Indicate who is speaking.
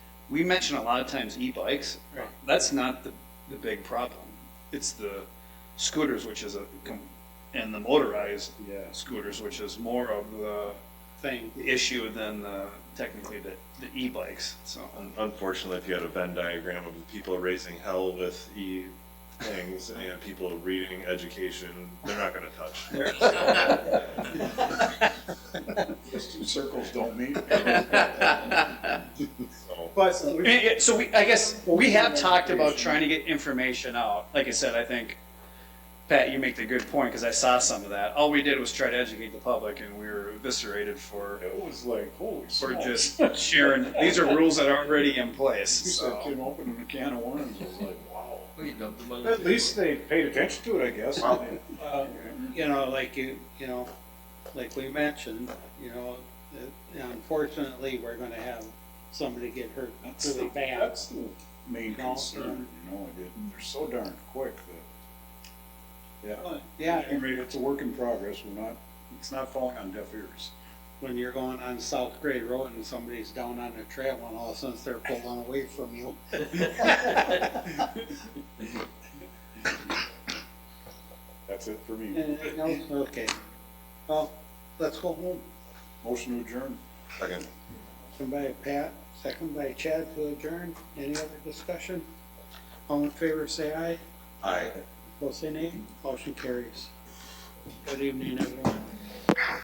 Speaker 1: we mention a lot of times e-bikes.
Speaker 2: Right.
Speaker 1: That's not the, the big problem. It's the scooters, which is a, com- and the motorized
Speaker 2: Yeah.
Speaker 1: scooters, which is more of the
Speaker 2: thing.
Speaker 1: issue than the, technically the, the e-bikes, so.
Speaker 2: Um,
Speaker 3: Un- Unfortunately, if you had a Venn diagram of the people raising hell with e things and people reading education, they're not going to touch.
Speaker 4: Those two circles don't meet.
Speaker 3: So,
Speaker 2: But
Speaker 1: I mean, yeah, So we, I guess, we have talked about trying to get information out. Like I said, I think, Pat, you make the good point, because I saw some of that. All we did was try to educate the public, and we were eviscerated for,
Speaker 4: It was like, holy
Speaker 1: for
Speaker 4: smokes.
Speaker 1: just sharing, these are rules that are already in place,
Speaker 4: You said
Speaker 1: so.
Speaker 4: Tim opened a can of worms, I was like, wow.
Speaker 5: We dumped the money.
Speaker 4: At least they paid attention to it, I guess.
Speaker 2: uh, you know, like you, you know, like we mentioned, you know, that unfortunately, we're gonna have somebody get hurt
Speaker 4: That's
Speaker 2: really
Speaker 4: the,
Speaker 2: bad.
Speaker 4: that's the main
Speaker 2: No.
Speaker 4: concern, you know, it- they're so darn quick that. Yeah. I
Speaker 2: Yeah,
Speaker 4: mean, it's a work in progress, we're not, it's not falling on deaf ears.
Speaker 2: when you're going on South Grade Road and somebody's down on the trail and all of a sudden they're pulling away from you.
Speaker 4: That's it for me.
Speaker 2: And, you know, Okay, well, let's go home.
Speaker 4: Motion to adjourn.
Speaker 3: second.
Speaker 2: Second by Pat, second by Chad to adjourn. Any other discussion? All in favor, say aye.
Speaker 3: Aye.
Speaker 2: Opposed, say nay. Motion carries. Good evening, everyone.